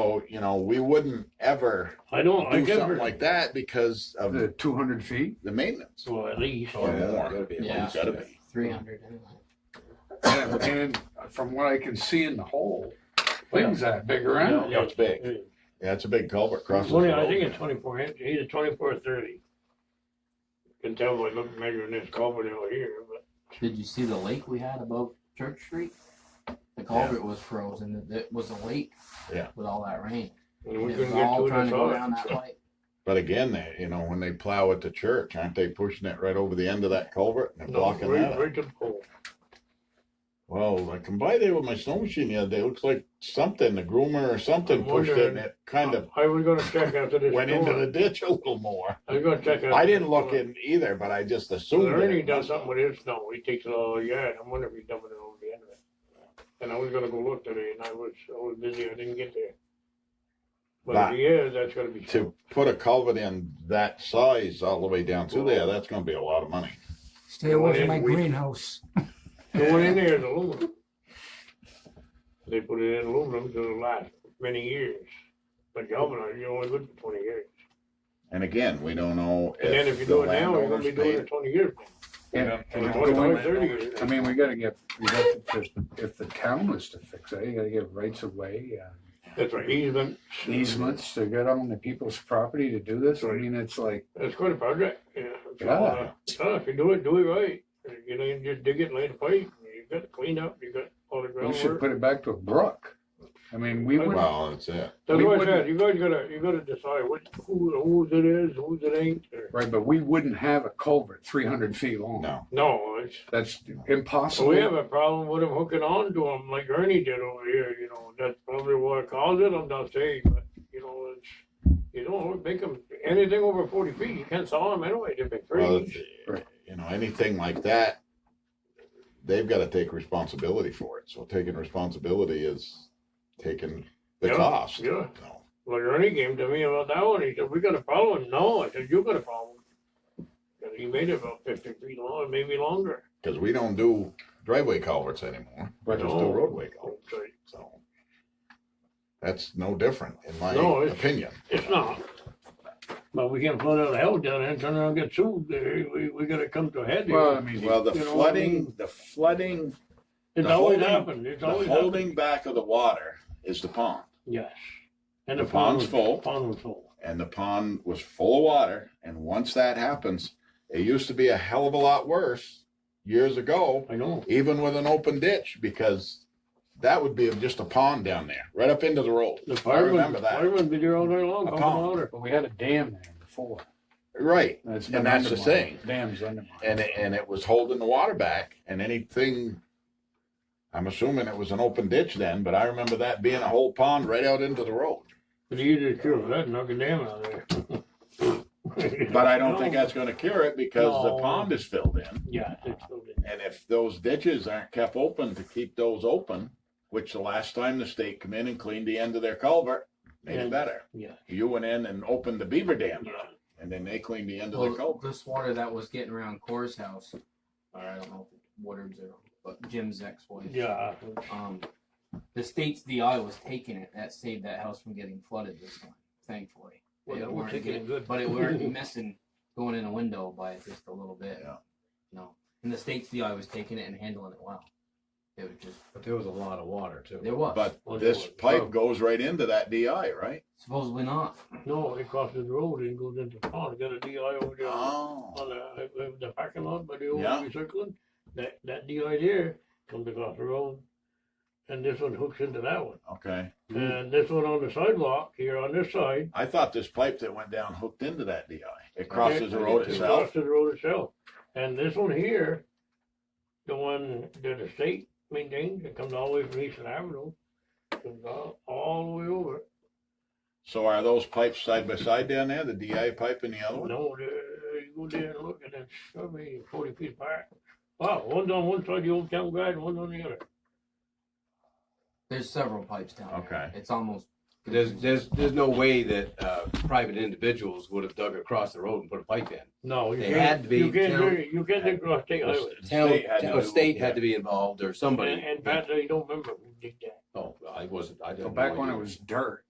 So, you know, we wouldn't ever I know, I do get something her. like that because of The two hundred feet? the maintenance So at least, or Yeah, more. that'd be It's at least gotta be. Three hundred anyway. And and from what I can see in the hole, things that big around. Yeah, it's big. eh, Yeah, it's a big culvert crosses. twenty, the I road. think it's twenty-four inch, either twenty-four or thirty. Can tell by looking, measuring this culvert over here, but Did you see the lake we had above Church Street? The culvert was frozen. It- It was a lake. Yeah. With all that rain. and we It was couldn't get all to it trying to go ourselves. down that pipe. But again, they, you know, when they plow at the church, aren't they pushing it right over the end of that culvert and No, blocking right, that? up? right to the pole. Well, I come by there with my snow machine the other day. It looks like something, the groomer or something I'm pushed it and wondering- it kind of I was gonna check after this. went into storm. the ditch a little more. I was gonna check. I after didn't this look storm. in either, but I just assumed. that Ernie it- does something with his snow, he takes it all yard, I wonder if he's dumping it over the end of it. And I was gonna go look today, and I was, I was busy, I didn't get there. But But- if he is, that's gonna be, To put a culvert in that size all the way down through there, that's gonna be a lot of money. Stay away Well, from my we- greenhouse. the one in there is aluminum. They put it in aluminum to last many years, but galvanized, you're only good for twenty years. And again, we don't know And then if you if the do it now, you're gonna landowners be doing it paid. twenty years. from now. And- Or and Twenty-five, going- thirty years. I mean, we gotta get, we got to just, if the town was to fix it, you gotta give rights of way, uh, That's right, easement, easements to get on the people's property to do this. I mean, it's like, that's quite a project, yeah. So, Yeah. uh, uh, If you do it, do it right, you know, you just dig it and lay the pipe, you got it cleaned up, you got all the we should groundwork. put it back to a brook. I mean, we would, Well, that's it. That's we what I wouldn't- said, you guys gotta, you gotta decide what, who, whose it is, whose it ain't, or, right, but we wouldn't have a culvert three hundred feet long. No, no, it's. That's So we have impossible. a problem with them hooking on to them like Ernie did over here, you know, that's probably what caused it, I'm not saying, but, you know, it's, you don't make them, anything over forty feet, you can't saw them anyway, they're big well, trees. it's- Right. you know, anything like that, they've gotta take responsibility for it. So taking responsibility is taking the Yeah, cost. yeah. So- Like Ernie came to me about that one, he said, we got a problem, no, I said, you got a problem. And he made it about fifty feet long, maybe longer, Because we don't do driveway culverts anymore. We just do No. roadway culverts. So so that's no different in my No, it's- opinion. It's not. But we can't flood out of hell down there and turn around and get sued. There, we, we gotta come to a head Well, I here. mean, Well, the You know, flooding, the flooding, It's the always holding- happened, it's the always happened. holding back of the water is the pond. Yes. And The the pond pond's was full. Pond was full. And the pond was full of water. And once that happens, it used to be a hell of a lot worse years ago, I know. even with an open ditch, because that would be just a pond down there, right up into the road. The remember firemen, that. firemen be there all day long, A pumping pond. water. But we had a dam there before. Right. That's And been that's the undermined. thing. Dam's undermined. and it, and it was holding the water back and anything i'm assuming it was an open ditch then but i remember that being a whole pond right out into the road It's easier to cure that, than knock a dam out there. but i don't think that's going to cure it because No. the pond is filled in Yeah, it's filled in. and if those ditches aren't kept open to keep those open which the last time the state come in and cleaned the end of their culvert made Yeah. it better Yeah. you went in and opened the beaver dam Yeah. and then they cleaned the end of the Well, culvert this water that was getting around Core's house, or I don't know if it's Woodard's or, but Jim's ex-wife. Yeah. Um, the state's DI was taking it. That saved that house from getting flooded this time, thankfully. Well, They that weren't would take getting- it good. But it weren't missing going in a window by just a little bit. Yeah. No. And the state's DI was taking it and handling it well. It was just, But there was a lot of water too. there was. but Well, this well, pipe well. goes right into that di right Supposedly not. No, it crosses the road and goes into the pond. Got a DI over there. oh on the, uh, the parking lot by the old Yeah. recycling, that, that DI there comes across the road. And this one hooks into that one. okay And this one on the sidewalk here on this side. I thought this pipe that went down hooked into that DI. It crosses the road it itself. Crosses the road itself. And this one here, the one that the state maintains, it comes all the way from Eastern Avenue, comes all, all the way over. So are those pipes side by side down there, the DI pipe and the other one? No, there, you go there and look and it's probably forty feet apart. Wow, one's on one side of the old town guide, one's on the other. There's several pipes down there. Okay. It's almost. There's, there's, there's no way that, uh, private individuals would have dug across the road and put a pipe in. No, you They can't- had to be You can't, town- do- you can't do cross state highway. The Town, State had to town, do- state had to be involved or And, somebody. and Pat, you don't remember who did that. Oh, I wasn't, I So didn't. back when it was dirt,